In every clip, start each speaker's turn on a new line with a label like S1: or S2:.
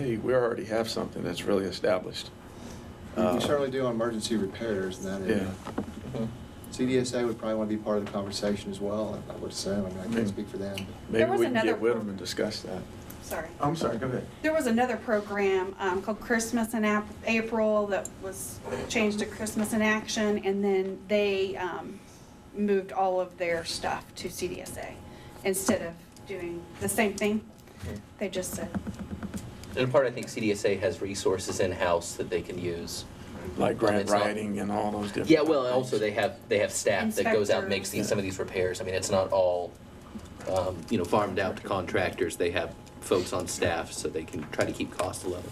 S1: we already have something that's really established.
S2: We certainly do on emergency repairs and that area.
S1: Uh, Yeah.
S3: Mm-hmm.
S2: CDSA would probably want to be part of the conversation as well, I would assume. I mean, I can't speak for them. but-
S1: Maybe
S4: was
S1: we can
S4: another
S1: get with
S4: pro-
S1: them and discuss that.
S4: Sorry.
S1: Oh, I'm sorry, go ahead.
S4: There was another program um, called Christmas in Ap- April that was changed to Christmas in Action, and then they um, moved all of their stuff to CDSA instead of doing the same thing. They just said,
S3: And in part, I think CDSA has resources in-house that they can use.
S1: Like grant
S3: It's not-
S1: writing and all those different.
S3: Yeah, well,
S1: things.
S3: also they have, they have staff that goes out and makes these, some of these repairs. I mean, it's not all, um, you know, farmed out to contractors. They have folks on staff, so they can try to keep costs low.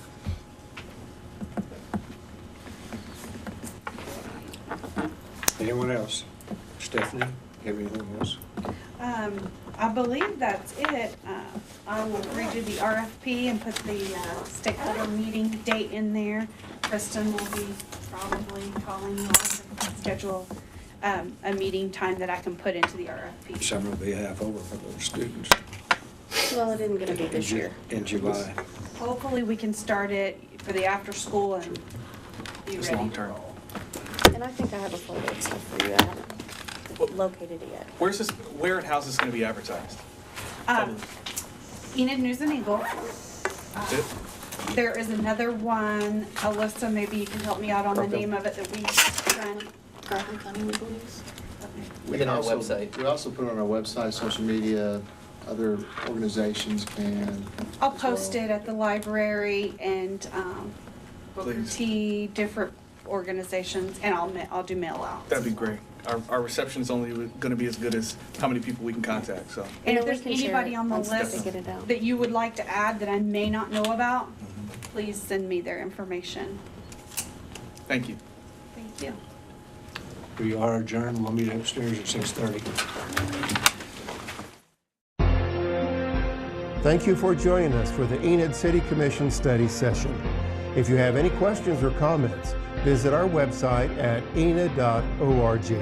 S2: Anyone else? Stephanie, you have anything else?
S4: um, I believe that's it. Uh, I will redo the RFP and put the uh, stakeholder meeting date in there. Kristen will be probably calling you all to schedule um, a meeting time that I can put into the RFP.
S5: Summer will be half over for those students.
S6: Well, it isn't gonna be this
S5: In Ju-
S6: year.
S5: In July.
S4: Hopefully, we can start it for the after-school and be
S1: It's
S4: ready to
S1: long-term.
S4: roll.
S6: And I think I have a folder of stuff for you. I haven't located it yet.
S7: Where's this, where and how's this gonna be advertised?
S4: Um, Enid News and Eagle. Uh,
S7: It-
S4: There is another one, Alyssa, maybe you can help me out on the
S3: Garfield.
S4: name of it that we run.
S6: Garfield County Legal News?
S2: We
S3: Within our
S2: also-
S3: website.
S2: We also put it on our website, social media, other organizations can.
S4: I'll
S2: as well.
S4: post it at the library and um, Booker
S7: Please.
S4: T, different organizations, and I'll, ma- I'll do mail out.
S7: That'd be great. Our, our reception's only gonna be as good as how many people we can contact, so.
S4: And if
S6: You know, we
S4: there's
S6: can share
S4: anybody
S6: it
S4: on the
S6: once they
S4: list
S6: get it out.
S4: that you would like to add that I may not know about,
S7: Mm-hmm.
S4: please send me their information.
S7: Thank you.
S4: Thank you.
S5: We are adjourned. We'll meet upstairs at 6:30.
S8: Thank you for joining us for the Enid City Commission Study Session. If you have any questions or comments, visit our website at enid.org.